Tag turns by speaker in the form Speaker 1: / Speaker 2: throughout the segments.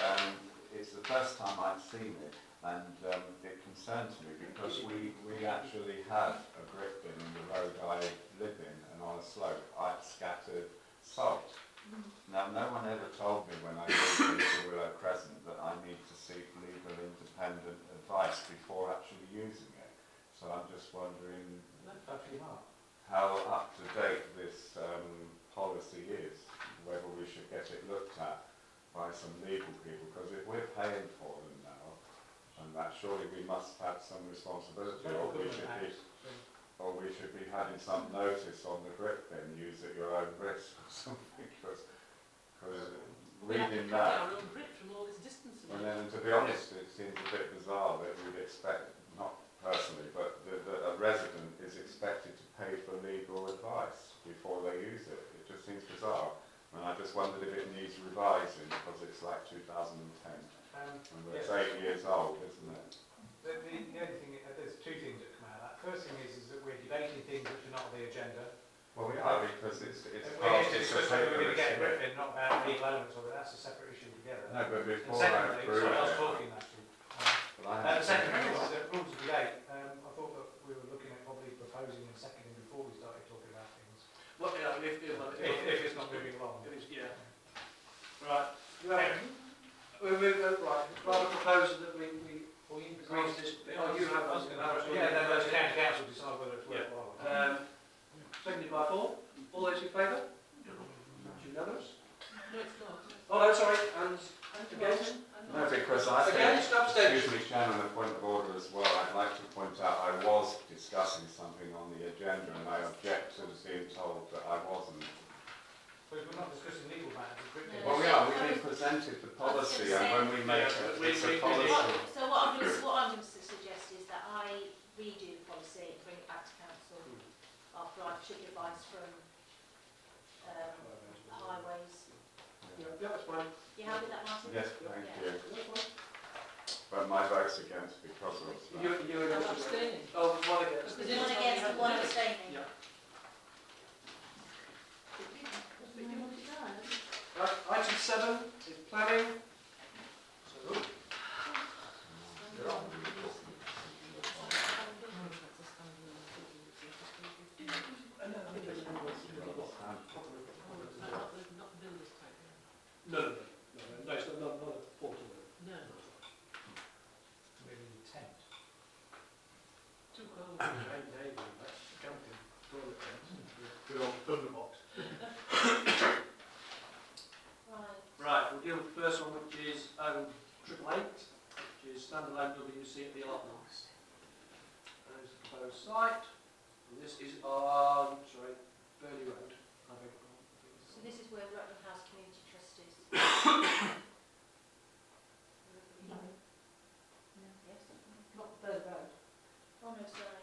Speaker 1: Um, first time I'd seen it, and um, it concerns me because we, we actually had a grip bin in the road I live in, and on a slope I'd scattered salt. Now, no one ever told me when I moved into Willow Crescent that I need to seek legal independent advice before actually using it. So I'm just wondering how up to date this um, policy is, whether we should get it looked at by some legal people, because if we're paying for them now, and that surely we must have some responsibility, or we should be, or we should be having some notice on the grip bin, use at your own risk or something, because, reading that.
Speaker 2: Our own grip from all this distance.
Speaker 1: And then, to be honest, it seems a bit bizarre that we'd expect, not personally, but that, that a resident is expected to pay for legal advice before they use it. It just seems bizarre. And I just wondered if it needs revising because it's like 2010 and
Speaker 3: Um,
Speaker 1: it's eight years old, isn't it?
Speaker 3: the, the, the only thing, uh, there's two things that come out of that. First thing is, is that we're debating things which are not on the agenda.
Speaker 1: Well, we are because it's it's
Speaker 3: We're
Speaker 1: part
Speaker 3: going
Speaker 1: of the
Speaker 3: to discuss whether we're going to get
Speaker 1: paper.
Speaker 3: Griffin, not about legal elements of it. That's a separate issue together.
Speaker 1: No, but
Speaker 3: And
Speaker 1: before I
Speaker 3: secondly,
Speaker 1: approve
Speaker 3: sorry, I was
Speaker 1: it,
Speaker 3: talking actually. Um,
Speaker 1: well, I
Speaker 3: Uh,
Speaker 1: have
Speaker 3: the
Speaker 1: to-
Speaker 3: second thing is that rules of debate. Um, I thought that we were looking at probably proposing and seconding before we started talking about things.
Speaker 2: Well, yeah, if, if,
Speaker 3: If, if it's not moving along.
Speaker 2: It is, yeah. Right.
Speaker 4: Right, we move, uh, right, rather propose that we, we
Speaker 3: Well, you
Speaker 4: agree to this, oh, you have us,
Speaker 3: Yeah, then those county council decide whether it's worthwhile. or not.
Speaker 4: Um, seconded by Paul, all those in favour? It's Unanimous?
Speaker 2: No, it's not.
Speaker 4: Oh, no, sorry, and
Speaker 2: I'm
Speaker 4: Against?
Speaker 2: I'm
Speaker 1: No,
Speaker 2: not.
Speaker 1: because I think...
Speaker 4: against, abstentions?
Speaker 1: Excuse me, Chairman, a point of order as well. I'd like to point out I was discussing something on the agenda and I object to being told that I wasn't.
Speaker 3: Because we're not discussing legal matters, we're quickly.
Speaker 1: Well, we are, we've been presented the policy and when we make it, it's a policy.
Speaker 5: What- So what I'm going to, what I'm going to suggest is that I redo the policy and bring it back to council after I've took advice from um, highways.
Speaker 4: Yeah, that's fine,
Speaker 5: You happy with that, Martin?
Speaker 1: Yes, thank you.
Speaker 4: that's fine.
Speaker 1: But my vote's against because of
Speaker 4: You,
Speaker 1: that.
Speaker 4: you and
Speaker 2: I'm
Speaker 4: us.
Speaker 2: abstaining.
Speaker 4: Oh, one against.
Speaker 2: Because
Speaker 5: One against and one abstaining.
Speaker 4: Yeah.
Speaker 2: But you want
Speaker 4: Right, item seven is planning. So, ooh,
Speaker 2: Not, not, the- not the builder's type.
Speaker 6: No, no, no, no, no, it's not, not, not a portal.
Speaker 2: No,
Speaker 3: Maybe intent.
Speaker 2: too cold.
Speaker 4: Good old Thunder box.
Speaker 5: Right.
Speaker 4: Right, we'll deal with the first one, which is um, triple eight, which is standalone WC at the allotments. There's the proposed site, and this is on, sorry, Burley Road. I beg your pardon. I think
Speaker 5: So
Speaker 4: it's-
Speaker 5: this is where Rutland House Community Trust is. Oh, Yes? Not Bird Road. Oh, no, sorry.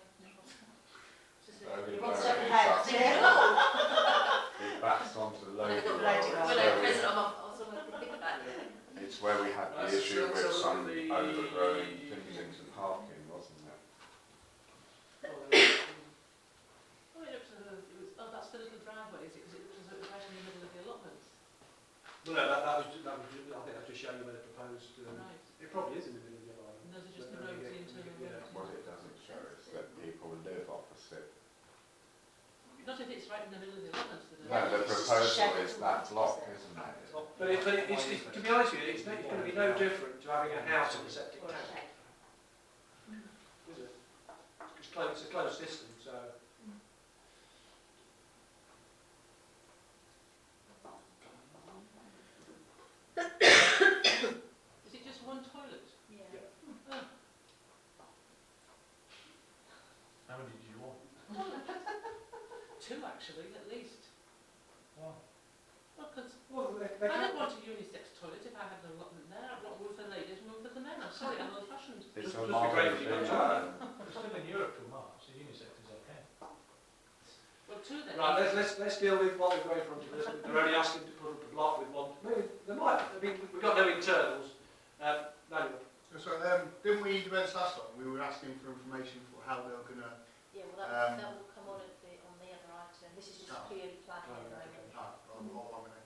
Speaker 5: Just a-
Speaker 1: Very,
Speaker 5: What's
Speaker 1: very
Speaker 5: up with
Speaker 1: bad.
Speaker 5: that? Yeah.
Speaker 1: It backs onto the local.
Speaker 5: Well, no,
Speaker 1: road.
Speaker 5: present, I'm also thinking about it.
Speaker 1: It's where we had
Speaker 4: Right,
Speaker 1: the
Speaker 4: so
Speaker 1: issue
Speaker 4: let's
Speaker 1: with
Speaker 4: have a
Speaker 1: some
Speaker 4: look at the-
Speaker 1: overgrown things into parking, wasn't it?
Speaker 4: Oh, there it is.
Speaker 2: Oh, it looks as though it was, oh, that's the little driveway, is it? Because it looks as though it was right in the middle of the allotment.
Speaker 4: No, no, that, that was, ju- that was, ju- I think that's just showing you where the proposed, um,
Speaker 2: Right.
Speaker 4: it probably is in the middle of the allotment.
Speaker 2: And those are just the roads, the internal
Speaker 4: Yeah.
Speaker 2: roads.
Speaker 1: What it doesn't show is that people live opposite
Speaker 2: Not if it's right in the middle of the allotment. so
Speaker 1: No,
Speaker 2: they're-
Speaker 1: the proposal is that block, isn't it?
Speaker 4: But it, but it, it's, it's, to be honest with you, it's, it's gonna be no different to having a house on a septic tank,
Speaker 5: Okay.
Speaker 4: is it? It's close, it's a close system, so.
Speaker 2: Is it just one toilet?
Speaker 5: Yeah.
Speaker 3: How many do you want?
Speaker 2: Two, actually, at least.
Speaker 3: Why?
Speaker 2: Well, 'cause
Speaker 3: Well, they,
Speaker 2: I
Speaker 3: they
Speaker 2: don't
Speaker 3: can't.
Speaker 2: want a unisex toilet if I had an allotment there. I've got one for the ladies and one for the men. I'm sorry, I'm old fashioned.
Speaker 1: It's
Speaker 4: Just-
Speaker 1: a
Speaker 4: just be
Speaker 1: marvel
Speaker 4: grateful
Speaker 1: thing,
Speaker 4: you got
Speaker 1: that.
Speaker 3: We're still in Europe till March, so unisex is okay.
Speaker 2: Well, two then.
Speaker 4: Right, let's, let's, let's deal with what we're going from to this. They're only asking to put up a block with one, maybe, they might, I mean, we've got no internals. Um, no,
Speaker 7: So, um, didn't we, when it's last time, we were asking for information for how they were going to...
Speaker 5: Yeah, well,
Speaker 7: Um,
Speaker 5: that, that will come on at the, on the other item. This is just
Speaker 7: Oh.
Speaker 5: purely planning at the moment.
Speaker 7: Ah, well, all I'm going